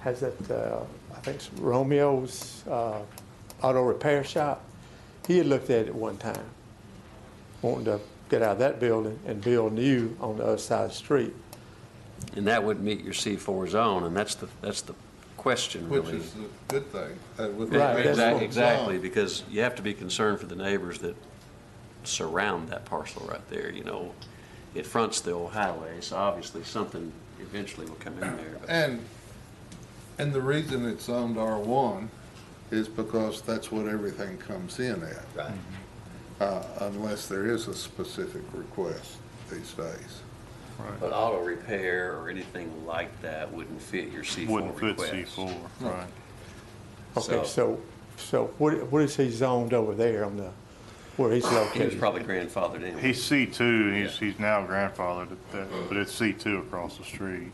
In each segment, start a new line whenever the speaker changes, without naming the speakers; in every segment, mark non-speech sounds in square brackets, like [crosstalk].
has that, uh, I think it's Romeo's uh, Auto Repair Shop. He had looked at it one time, wanting to get out of that building and build new on the other side of the street.
And that would meet your C4 zone, and that's the, that's the question,
Which
really.
is a good thing. uh, with the
Right, that's
Exac-
what-
residential
Exactly,
zone.
because you have to be concerned for the neighbors that surround that parcel right there, you know. It fronts the old highway, so obviously something eventually will come in there. but-
And, and the reason it's zoned R1 is because that's what everything comes in at. Right. Unless there is a specific request these days.
But auto repair or anything like that wouldn't fit your C4
Wouldn't fit
request.
C4, right.
Okay,
So-
so, so what, what is he zoned over there on the, where he's
He was
located?
probably grandfathered in.
He's C2, and he's, he's now grandfathered at that, but it's C2 across the street.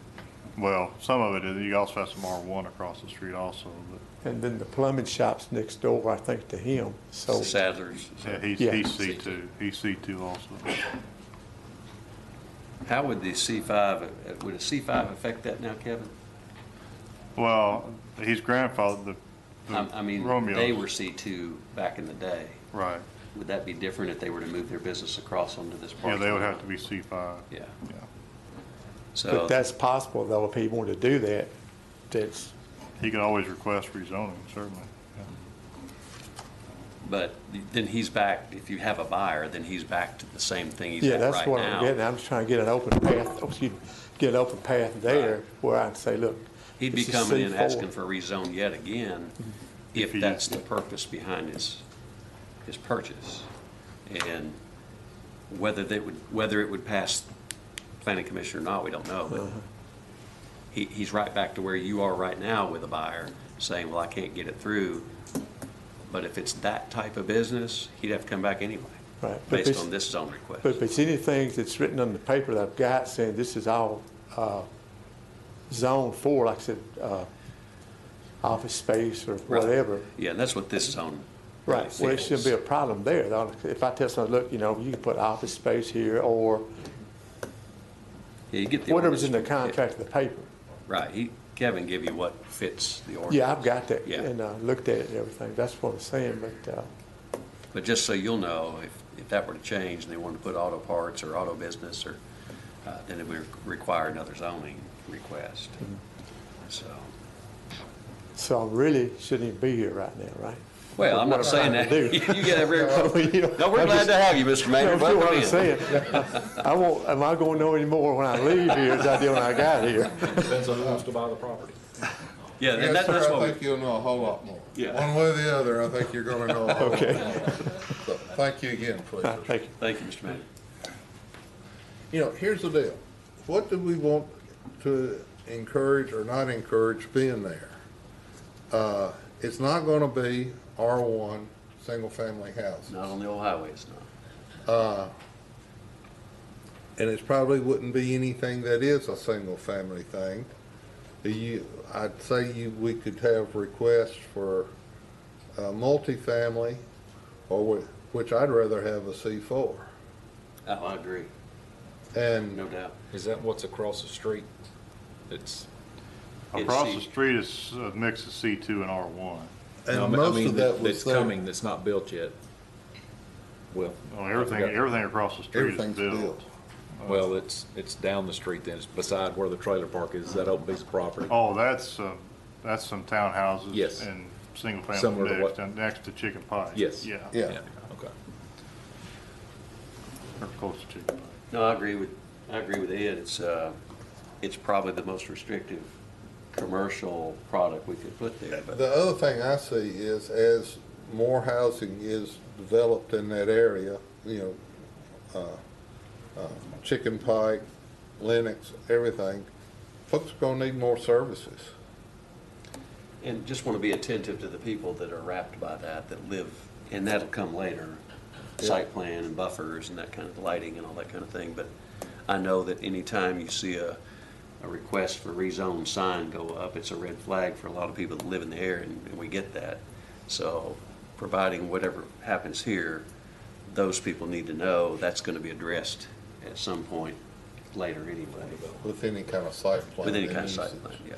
Well, some of it is, you also have some R1 across the street also, but
And then the plumbing shop's next door, I think, to him, so.
Sadler's.
yeah, he's,
Yeah.
he's C2, he's C2 also.
How would the C5, uh, would a C5 affect that now, Kevin?
Well, he's grandfathered, the-
I I
the
mean, they were
Hmm. Romeo's,
C2 back in the day.
right.
Would that be different if they were to move their business across onto this parcel?
Yeah, they would have to be C5.
Yeah,
Yeah.
so,
But that's possible, though, if he wanted to do that, that's,
He can always request rezoning, certainly.
but then he's back, if you have a buyer, then he's back to the same thing he's
yeah,
at
that's
right
what I'm getting,
now.
at. I'm just trying to get an open path, oh, excuse me, get an open path there where I can say, look.
He'd be
this is
coming in
C4.
asking for a rezone yet again, if
If he-
that's the purpose behind his, his purchase. And whether they would, whether it would pass planning commission or not, we don't know,
Uh-huh.
but he, he's right back to where you are right now with a buyer, saying, well, I can't get it through. But if it's that type of business, he'd have to come back anyway,
Right, but
based
this-
on this zone request.
But if it's anything that's written on the paper that I've got saying this is all uh, zone four, like I said, uh, office space or
Right.
whatever.
Yeah, and that's what this zone. really
Right, well, it shouldn't be a
fits.
problem there. though. If I tell someone, look, you know, you can put office space here or
Yeah, you get the.
whatever's in the
ordinance. Yeah.
contract of the paper.
Right, he, Kevin give you what fits the ordinance.
Yeah, I've got that
Yeah.
and uh, looked at it and everything. That's what I'm saying, but uh,
But just so you'll know, if, if that were to change and they wanted to put auto parts or auto business or, uh, then it would require another zoning request.
Mm-hmm.
So,
so I really shouldn't even be here right now, right?
well, I'm not
What am
saying
I
that.
gonna
[laughs] You
do?
get
[laughs]
every,
No, you know,
[laughs] no, we're
I'm
glad
just-
to have you, Mr. Mayor.
That's what
Welcome
I'm
in.
saying. I won't, am I going to know any more when I leave here as I did when I got here? [laughs]
Depends on who wants to buy the property.
Yeah, and
Yes,
that- that's
sir, I
what,
think you'll know a whole lot more.
Yeah.
One way or the other, I think you're going to know a whole lot
[laughs]
more.
Okay.
So, Thank you again,
[laughs]
please.
Thank you.
we- thank you, Mr. Mayor.
You know, here's the deal. What do we want to encourage or not encourage being there? Uh, It's not going to be R1, single-family house.
Not on the old highways, no.
And it probably wouldn't be anything that is a single-family thing. You, I'd say you, we could have requests for uh, multifamily, or wh- which I'd rather have a C4.
Oh, I agree,
And
no doubt.
Is that what's across the street? It's,
It's
Across
C-
the street is a mix of C2 and R1.
I
and
mean- I
most
mean,
of that was
that's
there.
coming, that's not built yet. Well,
Well, Oh, everything, everything across the street is
Everything's
built.
built.
well, it's, it's down the street then, it's beside where the trailer park is, that open piece of property.
Oh, that's, uh, that's some townhouses.
Yes.
And single-family
Similar to
next,
what-
and next to Chicken Pie.
Yes.
Yeah.
Yeah.
Okay.
Or close to Chicken Pie.
No, I agree with, I agree with Ed. It's, uh, it's probably the most restrictive commercial product we could put there, but
The other thing I see is as more housing is developed in that area, you know, uh, uh, Chicken Pike, Lennox, everything, folks are gonna need more services.
And just want to be attentive to the people that are wrapped by that, that live, and that'll come later, site plan and buffers and that kind of lighting and all that kind of thing. But I know that anytime you see a, a request for rezone sign go up, it's a red flag for a lot of people that live in the area, and and we get that. So providing whatever happens here, those people need to know that's going to be addressed at some point later anyway,
With any kind of site plan.
with any
and
kind of site
usage.
plan, yeah.